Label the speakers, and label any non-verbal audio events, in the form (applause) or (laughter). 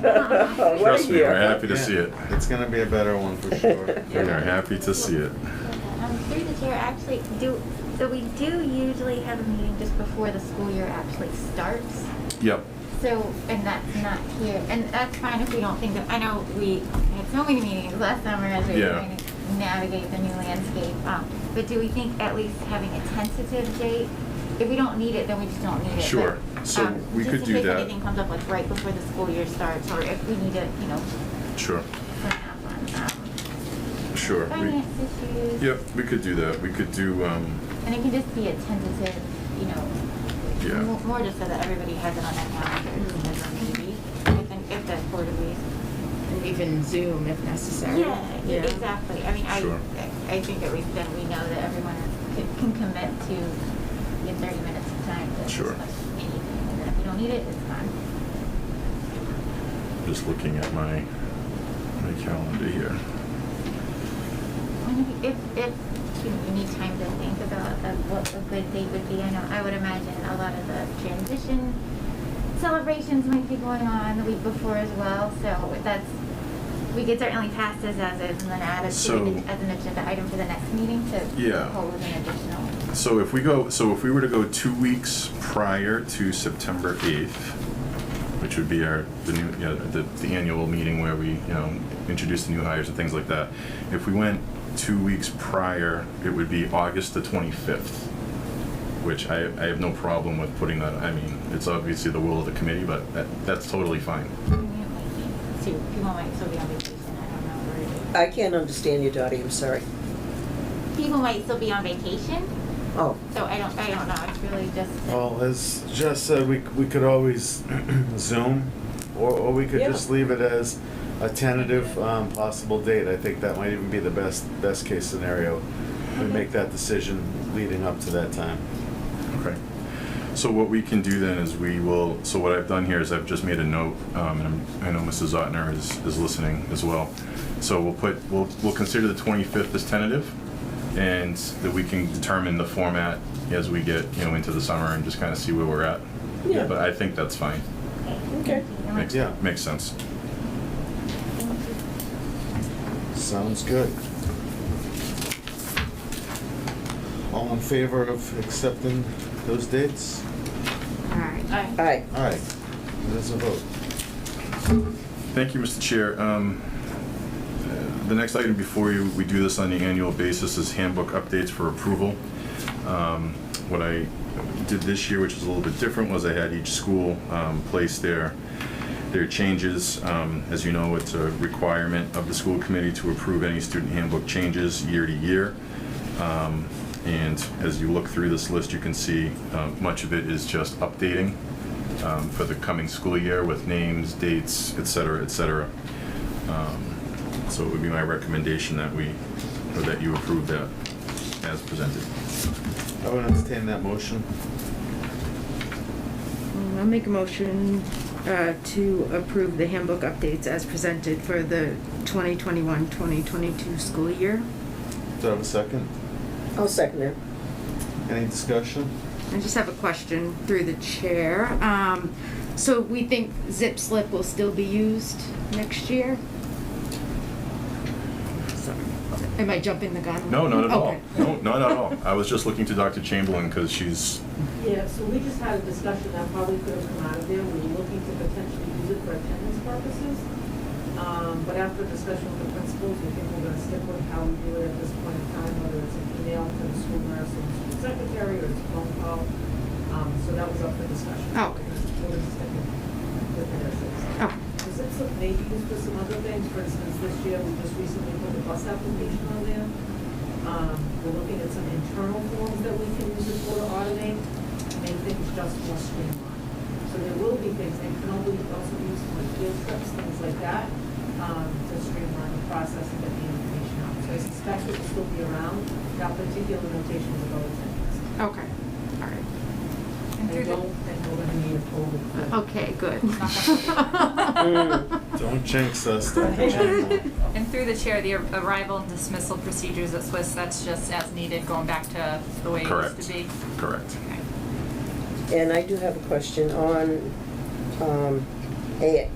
Speaker 1: What a
Speaker 2: Trust me, we're
Speaker 1: year.
Speaker 2: happy to see it.
Speaker 3: It's gonna be a better one for
Speaker 4: (laughs)
Speaker 3: sure.
Speaker 2: We are happy to see it.
Speaker 5: Um, through the chair, actually, do, so we do usually have a meeting just before the school year actually starts.
Speaker 2: Yep.
Speaker 5: So, and that's not here, and that's fine if we don't think of, I know we had so many meetings last summer as we were
Speaker 2: Yeah.
Speaker 5: trying to navigate the new landscape. Um, but do we think at least having a tentative date? If we don't need it, then we just don't need it. but,
Speaker 2: Sure. So
Speaker 5: um,
Speaker 2: we could do
Speaker 5: Just in
Speaker 2: that.
Speaker 5: case anything comes up like right before the school year starts, or if we need to, you know,
Speaker 2: Sure,
Speaker 5: perhaps on, um,
Speaker 2: sure. We-
Speaker 5: finance issues.
Speaker 2: Yep, we could do that. We could do, um,
Speaker 5: And it can just be a tentative, you know,
Speaker 2: Yeah.
Speaker 5: mo- more just so that everybody has it on their calendar, as a maybe, if, an- if that's sort of
Speaker 4: And even Zoom if necessary.
Speaker 5: Yeah, e- exactly, I mean, I,
Speaker 2: Sure.
Speaker 5: I- I think at least then we know that everyone is- can, can commit to in thirty minutes of time to
Speaker 2: Sure.
Speaker 5: discuss anything, and then if we don't need it, it's fine.
Speaker 2: just looking at my, my calendar here.
Speaker 5: And if, if, if you know, you need time to think about uh, what a good date would be, I know, I would imagine a lot of the transition celebrations might be going on the week before as well, so that's, we could certainly pass this as is and then add it to,
Speaker 2: So-
Speaker 5: an- as an agenda item for the next meeting to
Speaker 2: Yeah.
Speaker 5: hold an additional.
Speaker 2: So if we go, so if we were to go two weeks prior to September 8th, which would be our, the new, you know, the, the annual meeting where we, you know, introduce the new hires and things like that. If we went two weeks prior, it would be August the 25th, which I, I have no problem with putting that, I mean, it's obviously the will of the committee, but that, that's totally fine.
Speaker 5: See, people might still be on vacation, I don't know,
Speaker 1: I can't understand you, Dottie, I'm sorry.
Speaker 5: or, people might still be on vacation,
Speaker 1: Oh,
Speaker 5: so I don't, I don't know, it's really just.
Speaker 3: Well, as Jess said, we, we could always (clears throat) Zoom, or, or we could
Speaker 1: Yeah.
Speaker 3: just leave it as a tentative, um, possible date. I think that might even be the best, best case scenario. We
Speaker 5: Okay.
Speaker 3: make that decision leading up to that time.
Speaker 2: Okay. So what we can do then is we will, so what I've done here is I've just made a note, um, and I'm- I know Mrs. Zotner is, is listening as well. So we'll put, we'll, we'll consider the 25th as tentative, and that we can determine the format as we get, you know, into the summer and just kind of see where we're at.
Speaker 1: Yeah.
Speaker 2: But I think that's fine.
Speaker 1: Okay.
Speaker 2: Makes,
Speaker 3: Yeah.
Speaker 2: makes sense.
Speaker 5: Thank you.
Speaker 3: Sounds good. All in favor of accepting those dates?
Speaker 4: All right.
Speaker 1: all right.
Speaker 3: All right, there's a vote.
Speaker 2: Thank you, Mr. Chair. Um, uh, The next item before you, we do this on the annual basis, is handbook updates for approval. Um, What I did this year, which is a little bit different, was I had each school um, place their, their changes. Um, As you know, it's a requirement of the school committee to approve any student handbook changes year to year. Um, And as you look through this list, you can see um, much of it is just updating um, for the coming school year with names, dates, et cetera, et cetera. Um, So it would be my recommendation that we, or that you approve that as presented.
Speaker 3: I would entertain that motion.
Speaker 4: Mm, I'll make a motion uh, to approve the handbook updates as presented for the 2021-2022 school year.
Speaker 3: Do I have a second?
Speaker 1: I'll second it.
Speaker 3: Any discussion?
Speaker 4: I just have a question through the chair. Um, So we think zip slip will still be used next year? Sorry, Am I jumping the gun?
Speaker 2: No, not at all.
Speaker 4: Okay.
Speaker 2: No, not at all. I was just looking to Dr. Chamberlain because she's,
Speaker 6: Yeah, so we just had a discussion that probably could have come out of there, we were looking to potentially use it for attendance purposes. Um, but after discussion with the principals, we think we're gonna stick with how we do it at this point in time, whether it's an email to the school nurse or the school secretary or it's a phone call. Um, so that was up for discussion.
Speaker 4: Oh.
Speaker 6: We're just sticking with the nurses.
Speaker 4: (laughs) Oh,
Speaker 6: Is it some, maybe used for some other things, for instance, this year, we just recently put the bus application on there. Um, we're looking at some internal forms that we can use it for to automate, make things just more streamlined. So there will be things, and can only also be used for field trips, things like that, um, to streamline the process and get the information out. So I suspect it will still be around, that particular notation will go with it.
Speaker 4: okay, all right.
Speaker 5: And through
Speaker 6: And
Speaker 5: the-
Speaker 6: we'll, and we're gonna need a full.
Speaker 4: Uh, Okay, good. (laughs)
Speaker 5: Mm.
Speaker 3: Don't jinx us, Dr. Chamberlain.
Speaker 5: (laughs)
Speaker 7: And through the chair, the arrival and dismissal procedures at Swiss, that's just as needed, going back to the way it used
Speaker 2: correct.
Speaker 7: to be.
Speaker 2: Correct.
Speaker 7: Okay.
Speaker 1: And I do have a question on, um, A,